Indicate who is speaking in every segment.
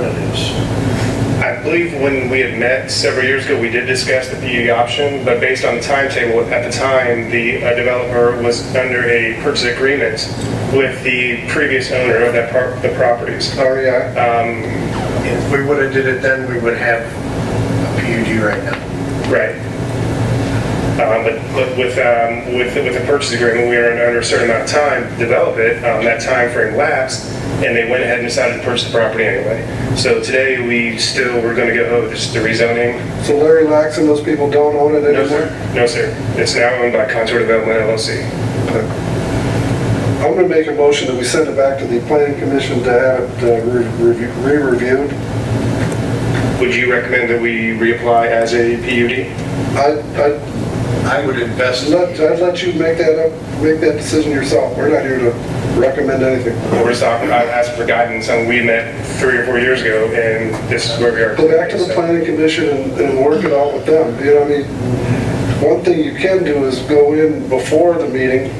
Speaker 1: alternatives.
Speaker 2: I believe when we had met several years ago, we did discuss the PUD option, but based on the timetable, at the time, the uh, developer was under a purchase agreement with the previous owner of that, par- the properties.
Speaker 1: Oh, yeah. If we would have did it then, we would have a PUD right now.
Speaker 2: Right. Um, But but with, um, with, with the purchase agreement, we were under a certain amount of time to develop it. Um, That time frame lapsed, and they went ahead and decided to purchase the property anyway. So today, we still, we're going to go, oh, this is the rezoning.
Speaker 3: So Larry Lax and those people don't own it
Speaker 2: No,
Speaker 3: anymore?
Speaker 2: sir. No, sir. It's now owned by Contour Development LLC.
Speaker 3: I'm gonna make a motion that we send it back to the planning commission to have it uh, re- re- re-reviewed.
Speaker 2: Would you recommend that we reapply as a PUD?
Speaker 3: I, I,
Speaker 1: I would invest,
Speaker 3: I'd let- I'd let you make that up, make that decision yourself. We're not here to recommend anything.
Speaker 2: Or is that, I asked for guidance, and we met three or four years ago, and this is where we are.
Speaker 3: Go back to the planning commission and, and work it out with them, you know, I mean, one thing you can do is go in before the meeting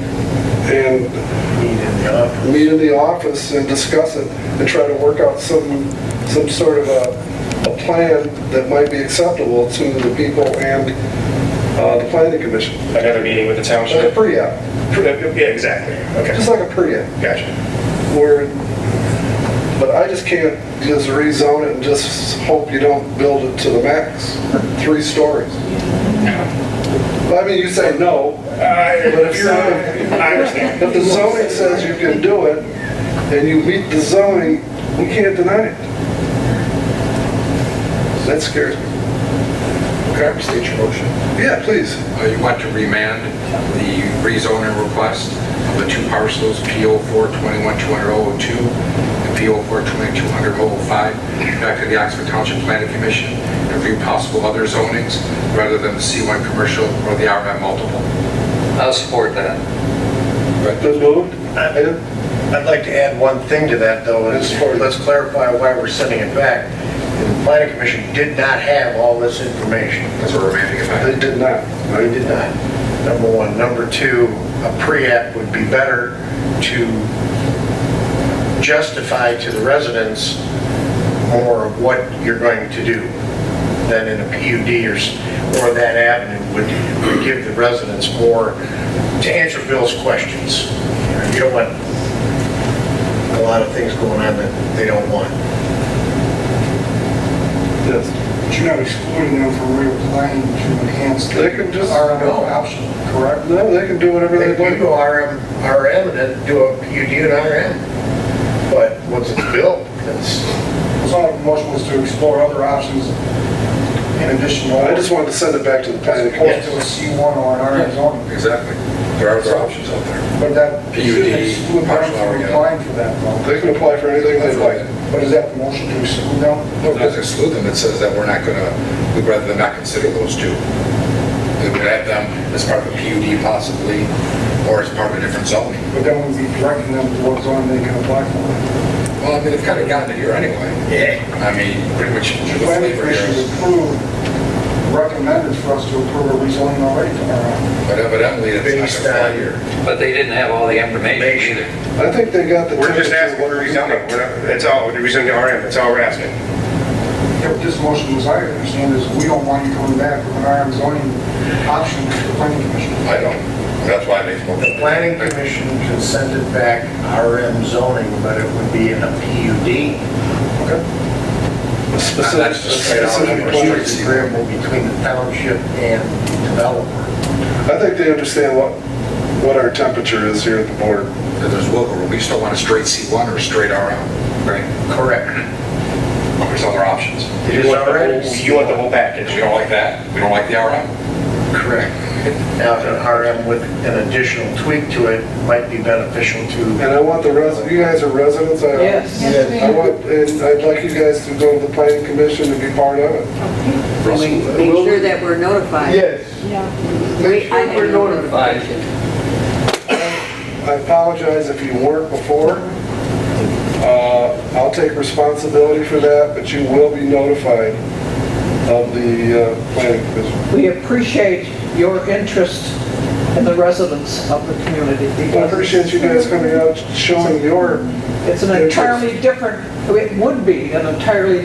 Speaker 3: and
Speaker 1: need in the office.
Speaker 3: meet in the office and discuss it and try to work out some, some sort of a, a plan that might be acceptable to the people and, uh, the planning commission.
Speaker 2: Another meeting with the
Speaker 3: Like a
Speaker 2: township? Uh,
Speaker 3: pre-app,
Speaker 2: Yeah, exactly. Okay,
Speaker 3: just like a pre-app,
Speaker 2: gotcha.
Speaker 3: where, but I just can't just rezone it and just hope you don't build it to the max, three stories. I mean, you say no, but if you're,
Speaker 2: I understand.
Speaker 3: if the zoning says you can do it, and you meet the zoning, we can't deny it. That scares me.
Speaker 4: Can I restate your motion?
Speaker 3: Yeah, please.
Speaker 4: Uh, You want to remand the rezoning request of the two parcels, PO 421-200-02 and PO 422-200-05, back to the Oxford Township Planning Commission and review possible other zonings rather than the C1 commercial or the RM multiple.
Speaker 5: I'll support that.
Speaker 3: Been moved? Item?
Speaker 1: I'd like to add one thing to that, though, is for- let's clarify why we're sending it back. The planning commission did not have all this information.
Speaker 4: That's what we're remanding it
Speaker 3: They
Speaker 4: back.
Speaker 3: did not.
Speaker 1: No, you did not. Number one. Number two, a pre-app would be better to justify to the residents more of what you're going to do than in a PUD or, s- or that avenue would, would give the residents more to answer Bill's questions. You don't want a lot of things going on that they don't want.
Speaker 3: Yes.
Speaker 6: But you're not excluding them from reapplying to enhance the
Speaker 3: They can just-
Speaker 6: RMO option, correct?
Speaker 3: No, they can do whatever
Speaker 1: They
Speaker 3: they
Speaker 1: do
Speaker 3: want.
Speaker 1: go RM, RM and then do a PUD and RM. But once it's built, it's,
Speaker 6: So our motion was to explore other options in addition to.
Speaker 3: I just wanted to send it back to the
Speaker 6: As
Speaker 3: planning
Speaker 6: opposed
Speaker 3: commission.
Speaker 6: to a C1 or an RM zone,
Speaker 4: Exactly. There are other options out there.
Speaker 6: but that
Speaker 4: PUD,
Speaker 6: should exclude them
Speaker 4: partial
Speaker 6: from
Speaker 4: REO.
Speaker 6: applying for that though.
Speaker 3: They can apply for anything they like.
Speaker 6: But is that the motion to exclude them?
Speaker 4: It doesn't exclude them, it says that we're not going to, we'd rather than not consider those two. We would add them as part of a PUD possibly, or as part of a different zoning.
Speaker 6: But then we'd be directing them to what zone they can apply for.
Speaker 4: Well, I mean, they've kind of gotten it here anyway.
Speaker 1: yeah.
Speaker 4: I mean, pretty much the
Speaker 6: The planning
Speaker 4: flavor here
Speaker 6: commission
Speaker 4: is,
Speaker 6: approved, recommended for us to approve a rezoning already to RM.
Speaker 4: but evidently it's
Speaker 1: Based
Speaker 4: not going
Speaker 1: on-
Speaker 4: to fly here.
Speaker 5: But they didn't have all the information either.
Speaker 3: I think they got the.
Speaker 2: We're just
Speaker 3: temperature
Speaker 2: asking for
Speaker 3: what
Speaker 2: a
Speaker 3: we
Speaker 2: rezoning. We're not, that's all, we're rezoning to RM, that's all we're asking.
Speaker 6: If this motion was, I understand, is we don't want you coming back with an RM zoning option to the planning commission.
Speaker 4: I don't, that's why they spoke.
Speaker 1: The planning commission can send it back RM zoning, but it would be in a PUD.
Speaker 4: That's
Speaker 3: Specific,
Speaker 4: just straight out
Speaker 3: specific
Speaker 4: number
Speaker 3: plan.
Speaker 4: straight
Speaker 1: It's agreeable between the township and developer.
Speaker 3: I think they understand what, what our temperature is here at the board.
Speaker 4: That There's wiggle room, we just don't want a straight C1 or a straight RM. Right.
Speaker 1: Correct.
Speaker 4: There's other options.
Speaker 1: It is
Speaker 2: You want the
Speaker 1: already.
Speaker 2: whole- You want the whole
Speaker 4: If
Speaker 2: package.
Speaker 4: we don't like that, we don't like the RM.
Speaker 1: Correct. Now, an RM with an additional tweak to it might be beneficial
Speaker 3: And
Speaker 1: to,
Speaker 3: I want the res, you guys are residents, I.
Speaker 7: Yes. Yes, we
Speaker 3: I want, and I'd like you guys to go to the planning commission and be part of it.
Speaker 8: Make sure that we're notified.
Speaker 3: Yes.
Speaker 8: Make sure we're notified.
Speaker 3: I apologize if you weren't before. Uh, I'll take responsibility for that, but you will be notified of the, uh, planning commission.
Speaker 7: We appreciate your interest and the residents of the community.
Speaker 3: I appreciate you guys coming out, showing your
Speaker 7: It's an entirely different, it would be an entirely